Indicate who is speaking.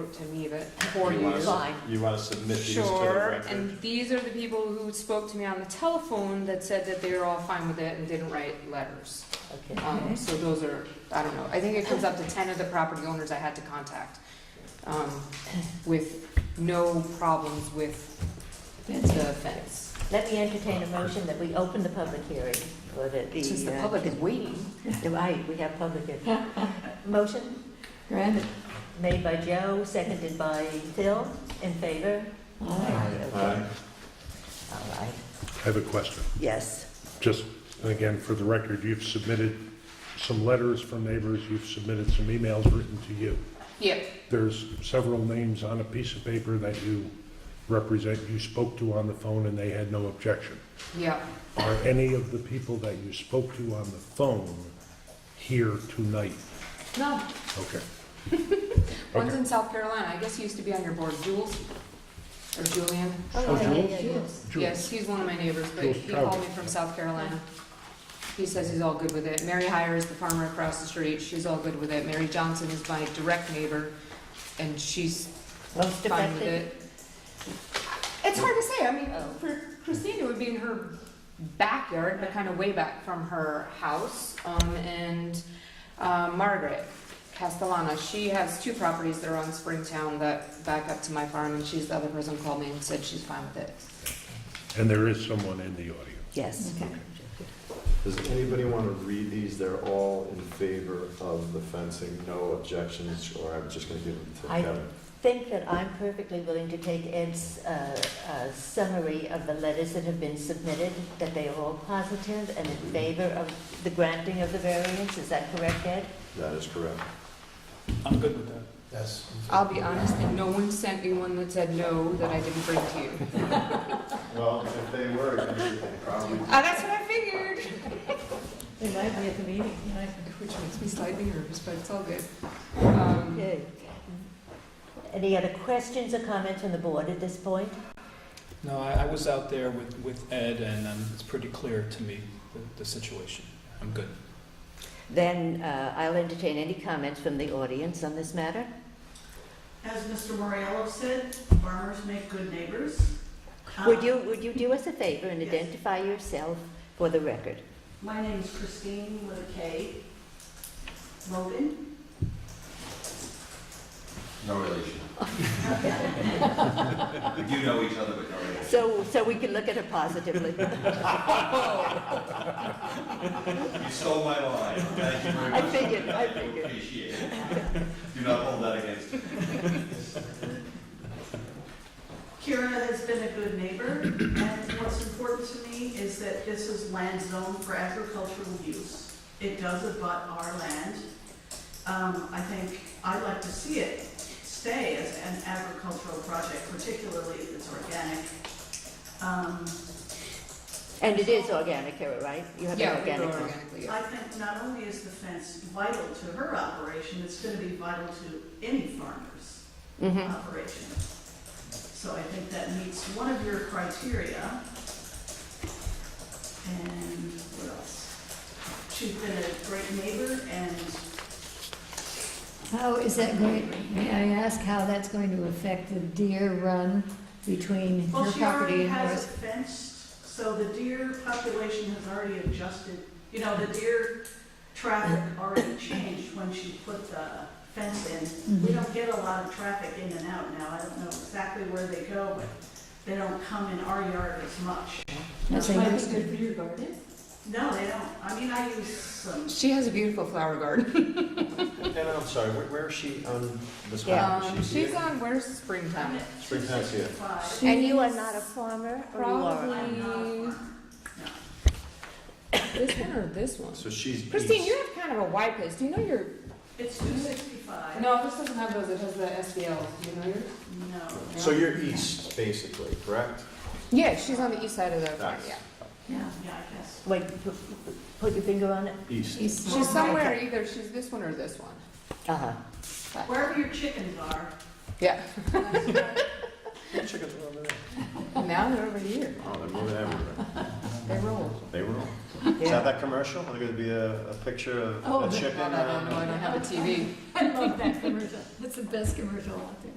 Speaker 1: it to me, but for
Speaker 2: You
Speaker 1: you,
Speaker 2: want us-
Speaker 1: fine.
Speaker 2: You want to submit these to the
Speaker 1: Sure,
Speaker 2: record?
Speaker 1: and these are the people who spoke to me on the telephone that said that they were all fine with it and didn't write letters.
Speaker 3: Okay.
Speaker 1: Um, so those are, I don't know, I think it comes up to ten of the property owners I had to contact, um, with no problems with the fence.
Speaker 3: Let me entertain a motion that we open the public hearing for the.
Speaker 1: Since the
Speaker 3: uh,
Speaker 1: public is waiting.
Speaker 3: Right, we have public hearing. Motion
Speaker 4: Granted.
Speaker 3: made by Joe, seconded by Phil, in favor?
Speaker 2: Aye.
Speaker 3: Okay. All right,
Speaker 5: I have a question.
Speaker 3: yes.
Speaker 5: Just, and again, for the record, you've submitted some letters from neighbors, you've submitted some emails written to you.
Speaker 1: Yeah,
Speaker 5: There's several names on a piece of paper that you represent, you spoke to on the phone, and they had no objection.
Speaker 1: yeah,
Speaker 5: Are any of the people that you spoke to on the phone here tonight?
Speaker 1: no,
Speaker 5: Okay.
Speaker 1: one's
Speaker 5: Okay.
Speaker 1: in South Carolina, I guess he used to be on your board, Jules, or Julian.
Speaker 3: Oh, yeah, yeah, yeah,
Speaker 5: Jules.
Speaker 1: Yes, he's one of my neighbors, but
Speaker 5: Jules
Speaker 1: he called
Speaker 5: Trout.
Speaker 1: me from South Carolina. He says he's all good with it. Mary Hire is the farmer across the street, she's all good with it. Mary Johnson is my direct neighbor, and she's
Speaker 3: Most
Speaker 1: fine with
Speaker 3: effective?
Speaker 1: it. It's hard to say, I mean,
Speaker 3: Oh.
Speaker 1: for Christine, it would be in her backyard, but kind of way back from her house. Um, and, uh, Margaret Castellana, she has two properties that are on Springtown that back up to my farm, and she's the other person who called me and said she's fine with it.
Speaker 5: And there is someone in the audience.
Speaker 3: Yes.
Speaker 2: Does anybody want to read these? They're all in favor of the fencing, no objections, or I'm just going to give them to
Speaker 3: I-
Speaker 2: Kevin.
Speaker 3: Think that I'm perfectly willing to take Ed's uh, uh, summary of the letters that have been submitted, that they are all positive and in favor of the granting of the variance, is that correct, Ed?
Speaker 2: That is correct.
Speaker 6: I'm good with that.
Speaker 7: Yes.
Speaker 1: I'll be honest, and no one sent me one that said no that I didn't bring to you.
Speaker 2: Well, if they were, you could probably.
Speaker 1: Ah, that's what I figured.
Speaker 4: Remind me at the meeting, right?
Speaker 1: Which makes me slightly nervous, but it's all good. Um,
Speaker 3: Okay. Any other questions or comments from the board at this point?
Speaker 6: No, I, I was out there with, with Ed, and um, it's pretty clear to me, the, the situation. I'm good.
Speaker 3: Then uh, I'll entertain any comments from the audience on this matter.
Speaker 8: As Mr. Morello said, farmers make good neighbors.
Speaker 3: Would
Speaker 8: Uh,
Speaker 3: you, would you do us a favor and
Speaker 8: Yes.
Speaker 3: identify yourself for the record?
Speaker 8: My name is Christine with a K. Logan.
Speaker 7: No relation. We do know each other, but no relation.
Speaker 3: So, so we can look at it positively.
Speaker 7: You stole my line. Thank you very
Speaker 3: I
Speaker 7: much.
Speaker 3: figured, I
Speaker 7: do
Speaker 3: figured.
Speaker 7: Appreciate it. Do not hold that against me.
Speaker 8: Kira has been a good neighbor, and what's important to me is that this is land zoned for agricultural use. It does abut our land. Um, I think I'd like to see it stay as an agricultural project, particularly if it's organic. Um,
Speaker 3: And it is organic here, right? You have an
Speaker 1: Yeah, we grow
Speaker 3: organic farm.
Speaker 1: organically. yeah.
Speaker 8: I think not only is the fence vital to her operation, it's gonna be vital to any farmer's
Speaker 3: Mhm.
Speaker 4: Mm-hmm.
Speaker 8: operation. So I think that meets one of your criteria. And what else? She's been a great neighbor and
Speaker 4: How is that going, may I ask how that's going to affect the deer run between
Speaker 8: Well,
Speaker 4: her
Speaker 8: she already
Speaker 4: property and
Speaker 8: has it
Speaker 4: yours?
Speaker 8: fenced, so the deer population has already adjusted. You know, the deer traffic already changed when she put the fence in.
Speaker 4: Mm-hmm.
Speaker 8: We don't get a lot of traffic in and out now. I don't know exactly where they go, but they don't come in our yard as much.
Speaker 4: That's what I was-
Speaker 8: for your garden? No, they don't. I mean, I use some,
Speaker 1: She has a beautiful flower garden.
Speaker 2: And I'm sorry, where, where is she on this map?
Speaker 1: Um,
Speaker 2: Is she
Speaker 1: she's
Speaker 2: here?
Speaker 1: on, where's Springtown?
Speaker 8: I'm at
Speaker 2: Springtown's here.
Speaker 8: 265.
Speaker 3: And you are not a farmer, or you
Speaker 1: Probably
Speaker 3: are?
Speaker 1: this one or this one?
Speaker 2: So she's.
Speaker 1: Christine,
Speaker 2: east.
Speaker 1: you have kind of a wide place. Do you know your?
Speaker 8: It's 265.
Speaker 1: No, this doesn't have those. It has the SBL. Do you know yours?
Speaker 8: No.
Speaker 2: So you're east, basically, correct?
Speaker 1: Yeah, she's on the east side of the farm.
Speaker 2: Nice.
Speaker 1: Yeah,
Speaker 4: Yeah.
Speaker 8: Yeah, I guess.
Speaker 3: Wait, p- p- put your finger on it?
Speaker 2: East.
Speaker 4: She's-
Speaker 1: she's somewhere either she's this one or this one.
Speaker 3: Uh-huh.
Speaker 8: Wherever your chickens are,
Speaker 1: Yeah.
Speaker 2: Chickens are over there.
Speaker 1: now they're over here.
Speaker 2: Oh, they're moving everywhere.
Speaker 1: They roll.
Speaker 2: They were. Is that
Speaker 3: Yeah.
Speaker 2: that commercial? Are there going to be a, a picture of
Speaker 4: Oh,
Speaker 2: a
Speaker 4: no,
Speaker 2: chicken?
Speaker 1: No, no, no, no, I don't have a TV.
Speaker 4: I love that commercial. That's the best commercial out there.